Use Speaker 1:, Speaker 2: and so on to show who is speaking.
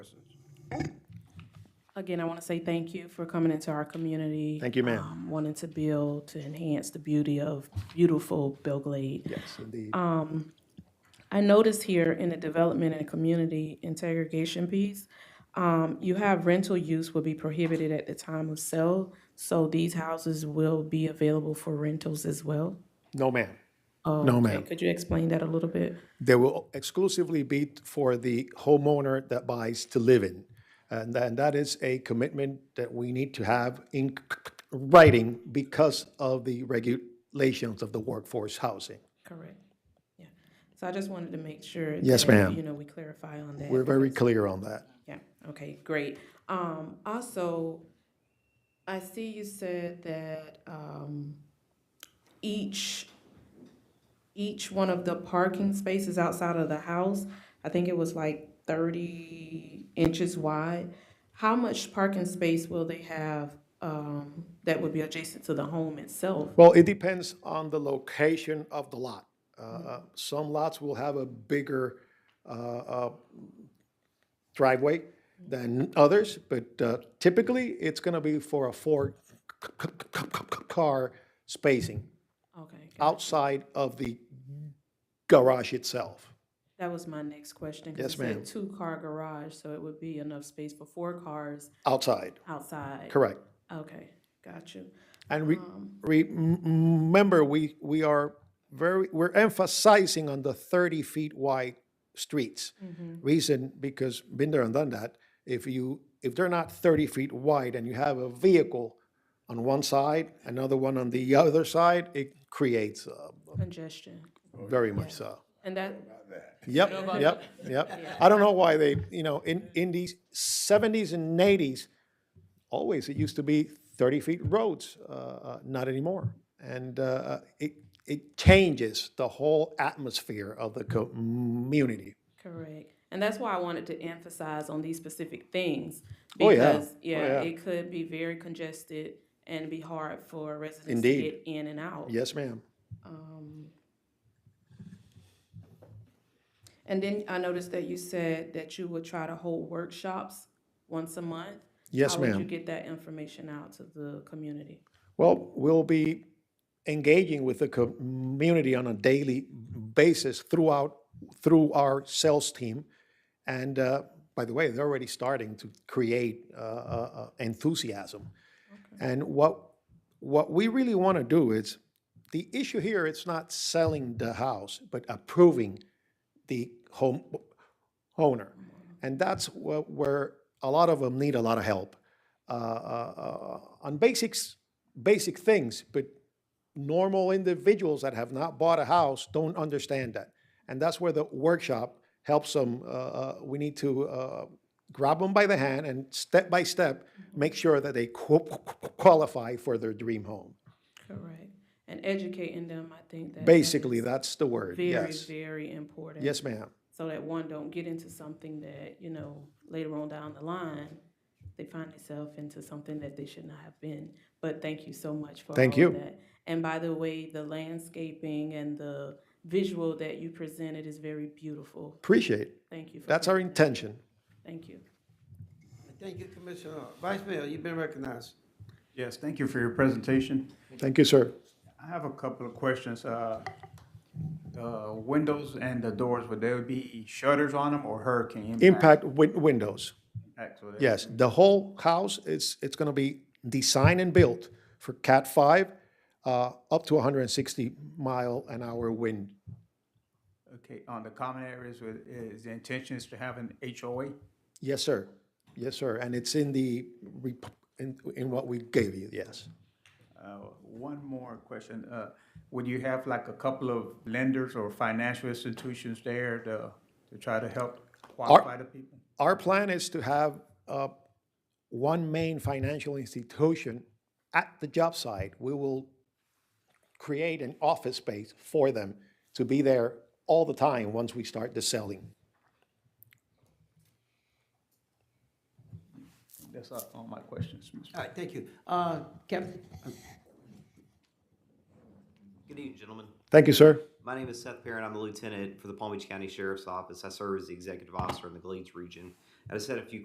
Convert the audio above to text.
Speaker 1: Again, I want to say thank you for coming into our community.
Speaker 2: Thank you, ma'am.
Speaker 1: um, Wanting to build, to enhance the beauty of beautiful Belglade.
Speaker 2: Yes, indeed.
Speaker 1: I noticed here in the development and community integration piece, um, you have rental use will be prohibited at the time of sale. So these houses will be available for rentals as well.
Speaker 2: No, ma'am. No, ma'am.
Speaker 1: Could you explain that a little bit?
Speaker 2: They will exclusively be t- for the homeowner that buys to live in. And then that is a commitment that we need to have in c- c- writing because of the regulations of the workforce housing.
Speaker 1: Correct. Yeah. So I just wanted to make sure.
Speaker 2: Yes,
Speaker 1: that,
Speaker 2: ma'am.
Speaker 1: You know, we clarify on that.
Speaker 2: We're very clear on that.
Speaker 1: Yeah, okay, great. Um, also, I see you said that, um, each, each one of the parking spaces outside of the house, I think it was like thirty inches wide. How much parking space will they have, um, that would be adjacent to the home itself?
Speaker 2: Well, it depends on the location of the lot. Uh, Some lots will have a bigger uh, uh, driveway than others, but uh, typically, it's going to be for a four-car spacing
Speaker 1: Okay, good.
Speaker 2: outside of the garage itself.
Speaker 1: that was my next question. 'cause
Speaker 2: Yes,
Speaker 1: it said
Speaker 2: ma'am.
Speaker 1: Two-car garage, so it would be enough space for four cars
Speaker 2: Outside,
Speaker 1: outside.
Speaker 2: correct.
Speaker 1: Okay, got you.
Speaker 2: And re- re- m- m- remember, we, we are very, we're emphasizing on the 30 feet wide streets. Reason, because been there and done that, if you, if they're not 30 feet wide and you have a vehicle on one side, another one on the other side, it creates, uh,
Speaker 1: Congestion.
Speaker 2: very much so.
Speaker 1: And that,
Speaker 2: Yep, yep, yep. I don't know why they, you know, in, in these seventies and eighties, always, it used to be thirty feet roads, uh, uh, not anymore. And, uh, it, it changes the whole atmosphere of the community.
Speaker 1: correct. And that's why I wanted to emphasize on these specific things.
Speaker 2: Oh, yeah.
Speaker 1: Because,
Speaker 2: Oh,
Speaker 1: yeah,
Speaker 2: yeah.
Speaker 1: it could be very congested and be hard for residents to
Speaker 2: Indeed.
Speaker 1: get in and out.
Speaker 2: Yes, ma'am.
Speaker 1: And then I noticed that you said that you would try to hold workshops once a month.
Speaker 2: Yes,
Speaker 1: How would you
Speaker 2: ma'am.
Speaker 1: get that information out to the community?
Speaker 2: Well, we'll be engaging with the community on a daily basis throughout, through our sales team. And uh, by the way, they're already starting to create uh, uh, uh, enthusiasm. And what, what we really want to do is, the issue here, it's not selling the house, but approving the home owner. And that's wh- where a lot of them need a lot of help uh, uh, uh, on basics, basic things, but normal individuals that have not bought a house don't understand that. And that's where the workshop helps them. uh, uh, We need to uh, grab them by the hand and step by step, make sure that they qu- qualify for their dream home.
Speaker 1: Correct. And educating them, I think that. that
Speaker 2: Basically,
Speaker 1: is
Speaker 2: that's the word,
Speaker 1: Very,
Speaker 2: yes.
Speaker 1: very important.
Speaker 2: Yes, ma'am.
Speaker 1: so that one don't get into something that you know later on down the line they find themselves into something that they should not have been but thank you so much for
Speaker 2: Thank
Speaker 1: all
Speaker 2: you.
Speaker 1: of that and by the way the landscaping and the visual that you presented is very beautiful
Speaker 2: Appreciate. it.
Speaker 1: thank you for
Speaker 2: That's
Speaker 1: that.
Speaker 2: our intention.
Speaker 1: thank you
Speaker 3: Thank you, Commissioner. Vice Mayor, you've been recognized.
Speaker 4: Yes, thank you for your presentation.
Speaker 2: Thank you, sir.
Speaker 4: I have a couple of questions. Uh, uh, Windows and the doors, would there be shutters on them or hurricane?
Speaker 2: Impact win- windows.
Speaker 4: impacts? Would there-
Speaker 2: Yes, the whole house is, it's gonna be designed and built for Cat five, uh, up to hundred and sixty mile an hour wind.
Speaker 4: Okay, on the common areas, would- is the intention is to have an HOA?
Speaker 2: Yes, sir. Yes, sir. And it's in the, rep- in, in what we gave you, yes.
Speaker 4: Uh, One more question. Uh, Would you have like a couple of lenders or financial institutions there to, to try to help qualify the people?
Speaker 2: Our plan is to have, uh, one main financial institution at the job site. We will create an office space for them to be there all the time once we start the selling.
Speaker 4: That's all- all my questions, Mr.
Speaker 3: All right, thank you. Uh, Captain?
Speaker 5: Good evening, gentlemen.
Speaker 2: Thank you, sir.
Speaker 5: My name is Seth Perrin. I'm the lieutenant for the Palm Beach County Sheriff's Office. I serve as the executive officer in the Glades region. I just had a few